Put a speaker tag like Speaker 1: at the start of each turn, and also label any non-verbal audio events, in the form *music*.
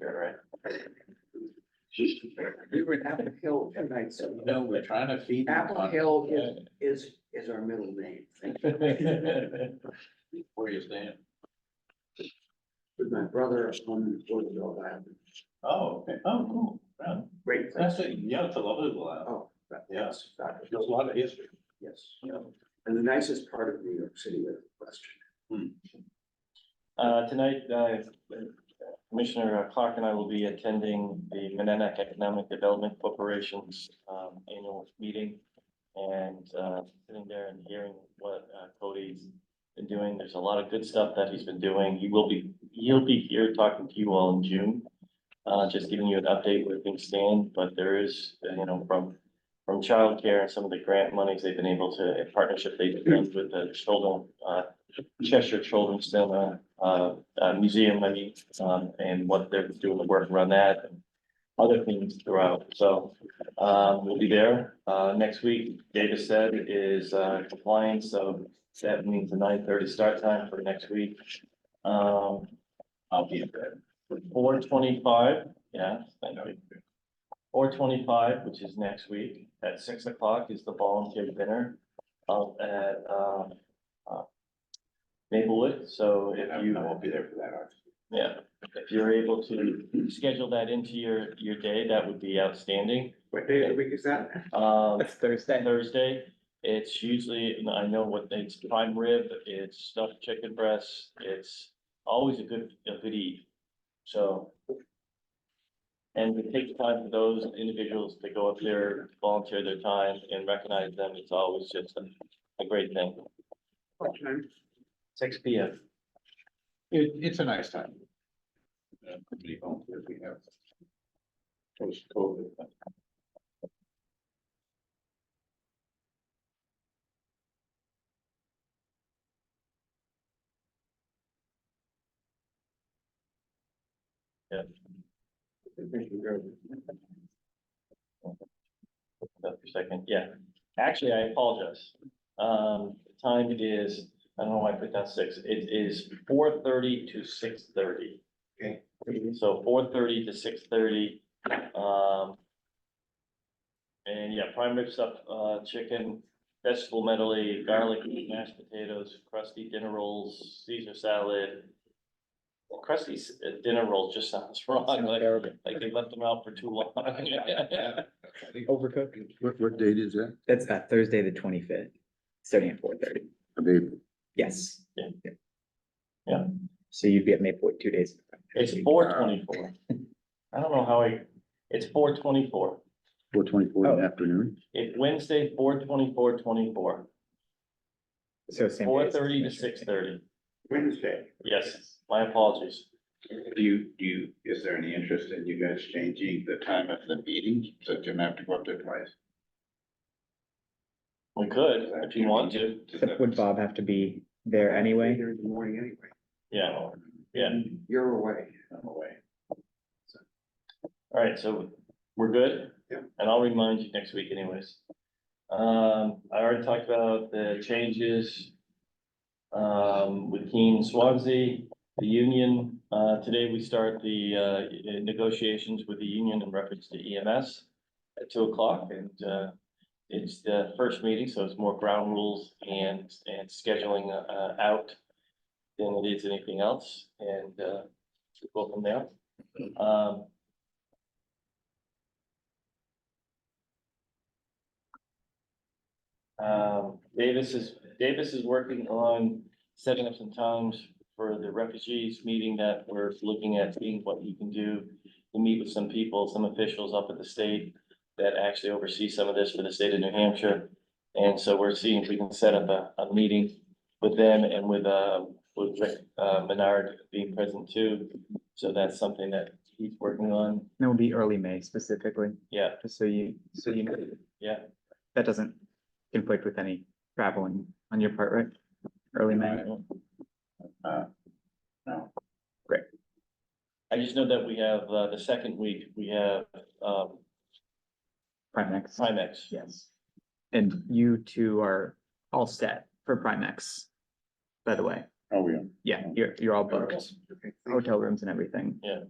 Speaker 1: right?
Speaker 2: We were in Apple Hill tonight, so.
Speaker 1: No, we're trying to feed. them
Speaker 2: Apple
Speaker 1: on-
Speaker 2: Hill is, is, is our middle name. Thank you.
Speaker 1: *laughs* Where you stand?
Speaker 2: With my brother on Roosevelt Island.
Speaker 1: Oh, okay, oh, cool, Wow.
Speaker 2: Great place.
Speaker 1: that's it, yeah, it's a lovely little island,
Speaker 2: Oh, that-
Speaker 1: Yes.
Speaker 2: that-
Speaker 1: there's a lot of history.
Speaker 2: Yes. And the nicest part of New York City with question.
Speaker 3: Uh, tonight, uh, Commissioner Clark and I will be attending the Monadnock Economic Development Corporation's, um, annual meeting. And, uh, sitting there and hearing what uh, Cody's been doing. There's a lot of good stuff that he's been doing. He will be, he'll be here talking to you all in June. Uh, just giving you an update where things stand, but there is, uh, you know, from, from childcare and some of the grant monies they've been able to, in partnership they've done with the children, uh, Cheshire Children's Center, uh, uh, museum, I mean, um, and what they're doing the work around that. and Other things throughout, so, um, we'll be there, uh, next week, David said is, uh, compliance, so that means a nine thirty start time for next week. Um,
Speaker 1: I'll be there.
Speaker 3: four twenty-five, yeah, thank you. Four twenty-five, which is next week, at six o'clock is the volunteer dinner out at, um, uh, Maplewood, so
Speaker 1: I
Speaker 3: if
Speaker 1: mean,
Speaker 3: you,
Speaker 1: I won't be there for that, aren't
Speaker 3: yeah, if you're able to schedule that into your, your day, that would be outstanding.
Speaker 2: What day of the week is that?
Speaker 3: Um,
Speaker 4: That's Thursday.
Speaker 3: Thursday, it's usually, and I know what, it's prime rib, it's stuffed chicken breast, it's always a good, a good eat, so. And we take time for those individuals to go up there, volunteer their time and recognize them, it's always just a, a great thing.
Speaker 2: What time?
Speaker 3: Six P M.
Speaker 1: It, it's a nice time. Uh, How many volunteers we have? Post COVID.
Speaker 3: Up for a second, yeah. Actually, I apologize. Um, the time is, I don't know why I put down six, it is four thirty to six thirty.
Speaker 1: Okay.
Speaker 3: So four thirty to six thirty, um. And yeah, prime rib stuff, uh, chicken, vegetable medley, garlic, mashed potatoes, crusty dinner rolls, Caesar salad. Well, crusty s- uh, dinner roll just sounds *laughs* wrong,
Speaker 4: Sounds
Speaker 3: like,
Speaker 4: terrible.
Speaker 3: like they left them out for too long. *laughs*
Speaker 4: Overcooked.
Speaker 5: What, what date is that?
Speaker 4: That's uh, Thursday, the twenty-fifth, starting at four thirty.
Speaker 5: I mean,
Speaker 4: Yes.
Speaker 3: Yeah. Yeah.
Speaker 4: So you'd be at Maplewood two days.
Speaker 3: It's four twenty-four. I don't know how I, it's four twenty-four.
Speaker 5: four twenty-four in the
Speaker 4: Oh.
Speaker 5: afternoon?
Speaker 3: It Wednesday, four twenty-four, twenty-four,
Speaker 4: So same.
Speaker 3: four
Speaker 4: days.
Speaker 3: thirty to six thirty.
Speaker 1: Wednesday.
Speaker 3: Yes, my apologies.
Speaker 1: Do you, do you, is there any interest in you guys changing the time of the meeting, so you don't have to go up there twice?
Speaker 3: We could, if you want to.
Speaker 1: Does
Speaker 4: But
Speaker 1: that-
Speaker 4: Would Bob have to be there anyway?
Speaker 2: There in the morning anyway.
Speaker 3: Yeah, yeah.
Speaker 2: You're away.
Speaker 1: I'm away.
Speaker 3: All right, so we're good?
Speaker 2: Yeah.
Speaker 3: And I'll remind you next week anyways. Um, I already talked about the changes. Um, with Keen Swansea, the union, uh, today we start the, uh, negotiations with the union in reference to EMS. At two o'clock and, uh, it's the first meeting, so it's more ground rules and, and scheduling, uh, out. Than it is anything else and, uh, go from there. Um, Um, Davis is, Davis is working on setting up some times for the refugees meeting that we're looking at, seeing what he can do. To meet with some people, some officials up at the state that actually oversee some of this for the state of New Hampshire. And so we're seeing if we can set up a, a meeting with them and with, uh, with Rick, uh, Menard being present too. So that's something that he's working on,
Speaker 4: That would be early May specifically,
Speaker 3: yeah,
Speaker 4: just so you, so you know,
Speaker 3: yeah.
Speaker 4: that doesn't conflict with any traveling on your part, right? Early May.
Speaker 1: Uh, No,
Speaker 3: I just know that we have, uh, the second week, we have, um,
Speaker 4: Primex.
Speaker 3: Primex.
Speaker 4: Yes. And you two are all set for Primex, by the way.
Speaker 5: Oh, yeah.
Speaker 4: Yeah, you're, you're all booked,
Speaker 2: Okay, thank you.
Speaker 4: hotel rooms and everything.